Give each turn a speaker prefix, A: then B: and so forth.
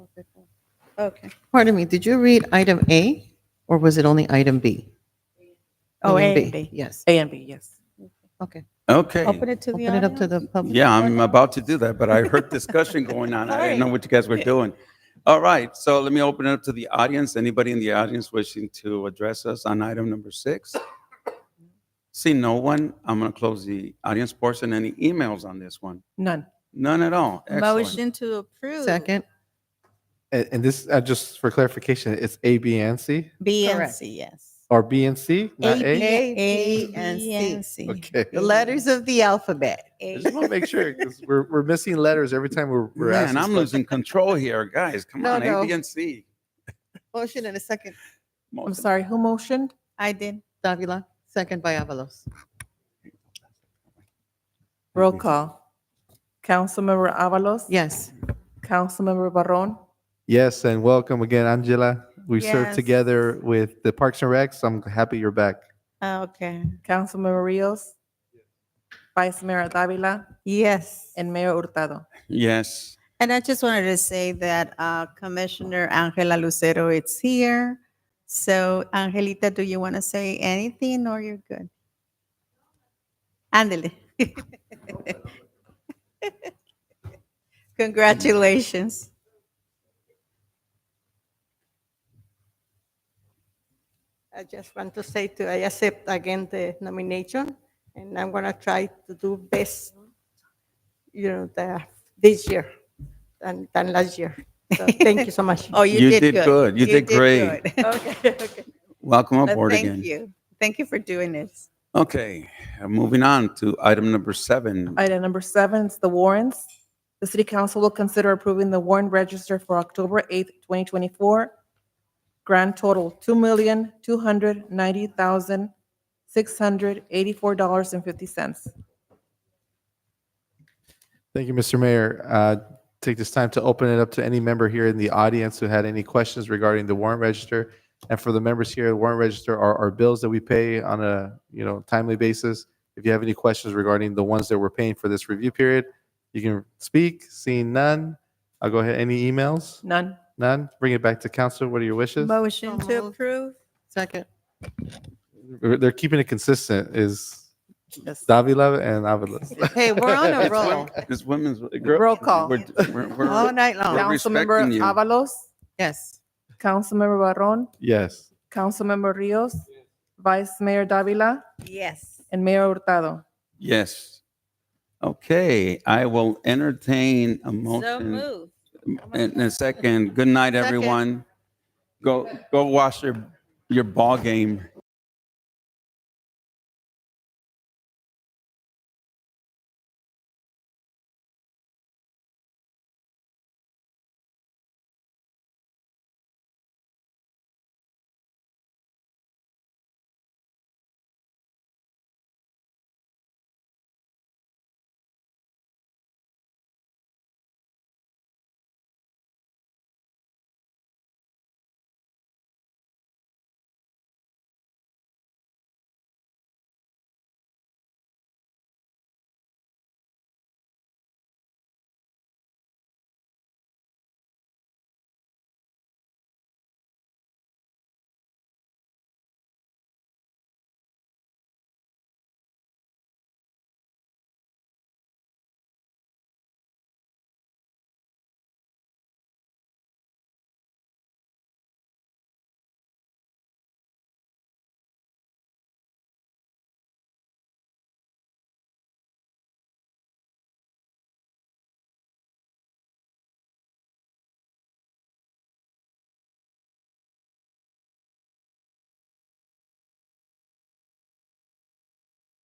A: Okay.
B: Pardon me, did you read item A or was it only item B?
A: Oh,
B: Item
A: A and B.
B: Yes,
A: A and B, yes.
B: okay.
C: Okay.
A: Open it to the
B: Open it up to
A: audience.
B: the public.
C: Yeah, I'm about to do that, but I heard discussion going on. I didn't know what you guys were doing. All right, so let me open it up to the audience. Anybody in the audience wishing to address us on item number six? See, no one, I'm going to close the audience portion. Any emails on this one?
A: None.
C: None at all. Excellent.
D: Motion to approve.
B: Second,
E: And, and this, uh, just for clarification, it's A, B, and C,
D: B and
B: Correct.
D: C, yes.
E: or B and C, not
D: B,
E: A?
B: A, B, and
D: B,
B: C.
D: C.
E: Okay.
B: the letters of the alphabet.
E: I
D: A-
E: just want to make sure, because we're, we're missing letters every time we're, we're
C: Man,
E: asking.
C: I'm
E: stuff.
C: losing control here, guys. Come
B: No,
C: on, A,
B: no.
C: B, and C.
B: Motion and a second,
A: I'm sorry, who motioned?
D: I did.
B: Davila, second by Avalos.
A: Roll call. Councilmember Avalos?
B: Yes,
A: Councilmember Barron?
E: Yes, and welcome again, Angela. We served
D: Yes.
E: together with the Parks and Recs. I'm happy you're back.
D: Oh, Okay.
A: Councilmember Rios? Vice Mayor Davila?
D: Yes.
A: And Mayor Hurtado?
C: Yes.
D: And I just wanted to say that uh, Commissioner Angela Lucero is here. So Angelita, do you want to say anything or you're good? Andele. Congratulations.
F: I just want to say to, I accept again the nomination, and I'm gonna try to do best, you know, the, this year than, than last year. So thank you so much.
D: Oh, you did good.
C: You did great.
D: good.
F: Okay, okay.
C: Welcome
D: But
C: aboard again.
D: Thank you. Thank you for doing this.
C: Okay, uh, moving on to item number seven.
A: Item number seven is the warrants. The city council will consider approving the warrant register for October 8th, 2024. Grand total, $2,290,684.50.
E: Thank you, Mr. Mayor. Uh, Take this time to open it up to any member here in the audience who had any questions regarding the warrant register. And for the members here, the warrant register are our bills that we pay on a, you know, timely basis. If you have any questions regarding the ones that we're paying for this review period, you can speak. Seeing none, I'll go ahead. Any emails?
A: None.
E: None? Bring it back to council. What are your wishes?
D: Motion
B: So
D: to
B: moved.
D: approve.
B: second,
E: They're they're keeping it consistent is
A: Yes.
E: Davila and Avalos.
B: hey, we're on a
C: It's
B: roll,
C: wom- It's women's.
A: Roll call.
C: We're- we're- we're-
B: all night long,
C: We're respecting
A: Councilmember
C: you.
A: Avalos,
B: yes.
A: Councilmember Barron,
E: Yes.
A: Councilmember Rios, Vice Mayor Davila,
D: Yes.
A: and Mayor Hurtado.
C: Yes. Okay, I will entertain a
D: So
C: motion
D: move.
C: in a second. Good night,
B: Second.
C: everyone. Go, go watch your, your ball game.